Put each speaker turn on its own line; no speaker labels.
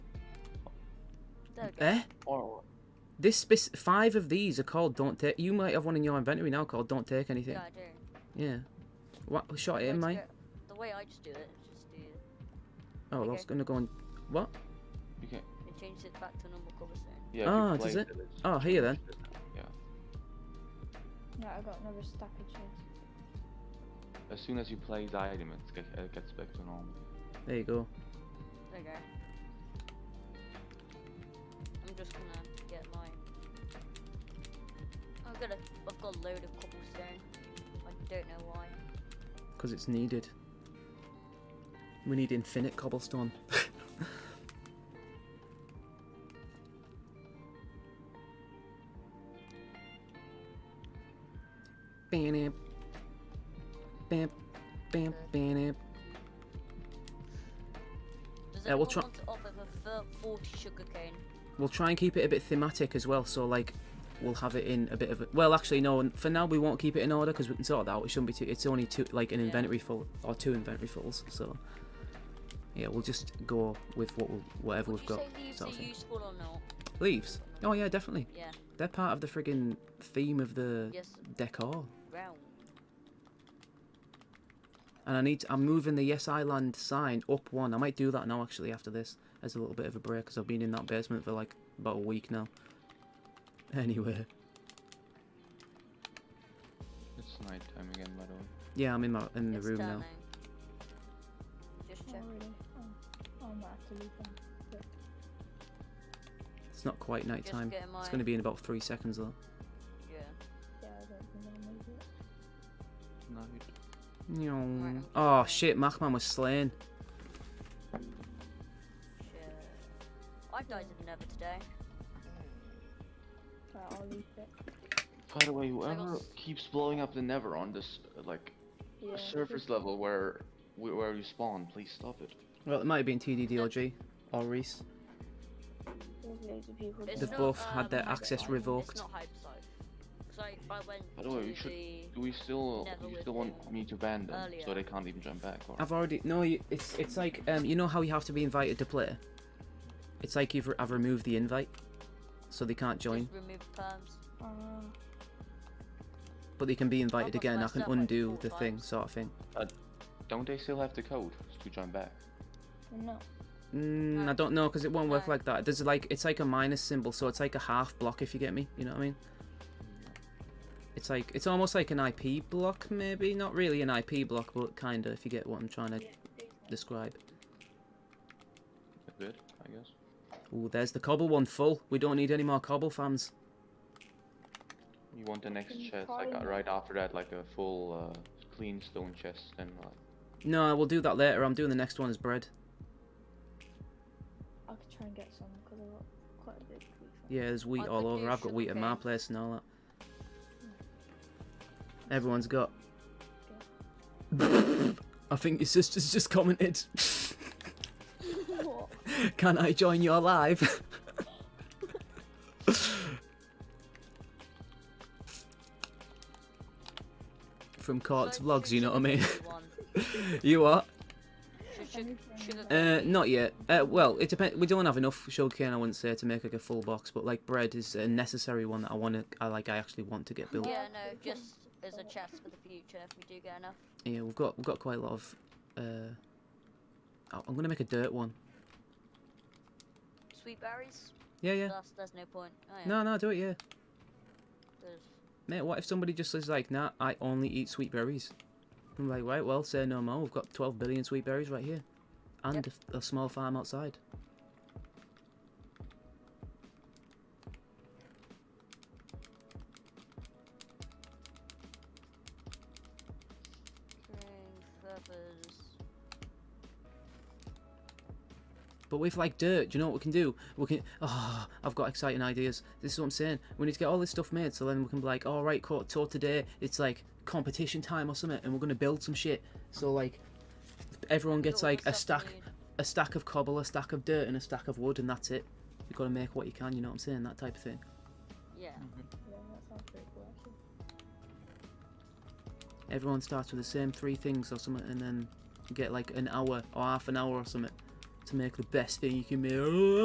They're good.
Eh?
Or
This spec- five of these are called "Don't Take." You might have one in your inventory now called "Don't Take Anything."
yeah, I do.
Yeah. What? Shot
The
it
way
in
to
mine.
go- The way I just do it is just do
Oh, well, I was
okay.
gonna go and. What?
You can,
it changes it back to normal cobblestone.
yeah,
Ah,
you
does
played
it? Oh, here then.
No, I got another stack of cheese.
As soon as you play the item, it ge- it gets back to normal.
There you go.
There you go. I'm just gonna get my. I've got a, I've got a load of cobblestone. I don't know why.
Because it's needed. We need infinite cobblestone. Bam, bam, bam, bam.
Does
Yeah,
anyone
we'll try-
want to offer for thir- 40 sugarcane?
We'll try and keep it a bit thematic as well. So like, we'll have it in a bit of. A, well, actually, no. For now, we won't keep it in order because we can sort that out. It shouldn't be too. It's only two, like an
Yeah.
inventory full or two inventory fulls. So yeah, we'll just go with what we'll, whatever
Would
we've
you
got.
say leaves
sort of
are
thing.
useful or not?
Leaves. Oh yeah, definitely.
Yeah.
They're part of the friggin' theme of the
Yes.
decor.
Round.
And I need. I'm moving the Yes Island sign up one. I might do that now actually after this as a little bit of a break because I've been in that basement for like about a week now. Anyway.
It's night time again, by the way.
Yeah, I'm in my in the
It's
room now.
turn Just
Oh,
check.
really? Oh, I might have to leave them.
It's not quite night
Just
time.
get my.
It's going to be in about three seconds though.
Yeah.
Yeah, I don't think I'll make it.
Night.
I'm
Nyeong.
just
Oh
gonna-
shit, Machman was slain.
Shit. I died to the never today.
Right, I'll leave it.
By the way,
I
whoever
got-
keeps blowing up the Never on this uh, like
Yeah.
surface level where wh- where you spawn, please stop it.
Well, it might have been TDDOG or Reese.
There's loads of people.
It's
doing
They've
not,
that.
both had their
um,
access
hypersite.
revoked.
It's not hypersite. 'Cause I, I went
By
to
the way, you should-
the.
Do we still
Never
do you
with
still want
them
me to ban them so
earlier.
they can't even jump back? Or...
I've already no. you- It's it's like um, you know how you have to be invited to play. It's like you've re- I've removed the invite, so they can't join,
Just remove perms.
Ah,
but they can be invited
got
again. I
messed
can
up like
undo
four
the thing,
times.
sort of thing.
Don't they still have the code to jump back?
they're not.
Mm, I
Right.
don't know because it won't work
Right.
like that. There's like it's like a minus symbol, so it's like a half block if you get me. You know what I mean? It's like it's almost like an IP block, maybe not really an IP block, but kind of if you get what I'm trying to describe.
A bit, I guess.
Ooh, there's the cobble one full. We don't need any more cobble fans.
You want the next
Can you
chest,
call
like uh,
him?
right after that, like a full uh, clean stone chest, and like
No, we'll do that later. I'm doing the next one as bread.
I could try and get some because I got quite a bit of food. from-
Yeah, there's
I
wheat all
could
over.
do
I've got wheat at my
sugarcane.
place and all that. Everyone's got. I think your sister's just commented.
What?
Can I join your live? From Court's
So
vlogs,
should
you know what I mean?
sugarcane be one?
you what?
Should
Let me
sug-
try and
sugarcane
Uh,
be-
not yet. Uh, well, it depends. We don't have enough sugarcane, I wouldn't say, to make like a full box. But like bread is a necessary one that I want to. I like. I actually want to get built.
Yeah, no, just as a chest for the future if we do get enough.
Yeah, we've got we've got quite a lot of. Uh, oh, I'm gonna make a dirt one.
Sweet berries?
Yeah, yeah.
That's, there's no point. Oh, yeah.
No, no, do it. Yeah,
There's-
mate. What if somebody just is like, nah, I only eat sweet berries? I'm like, right, well, say no more. We've got 12 billion sweet berries right here, and
Yep.
a f- a, small farm outside.
green feathers.
But with like dirt, do you know what we can do? We can. Oh, I've got exciting ideas. This is what I'm saying. We need to get all this stuff made so then we can be like, all right, court, so today it's like competition time or something, and we're gonna build some shit. So like, everyone gets
Yo,
like a
what's up,
stack,
dude?
a stack of cobble, a stack of dirt, and a stack of wood, and that's it. You gotta make what you can. You know what I'm saying? That type of thing.
Yeah.
Yeah, that sounds pretty cool actually.
Everyone starts with the same three things or something, and then you get like an hour or half an hour or something to make the best thing you can make.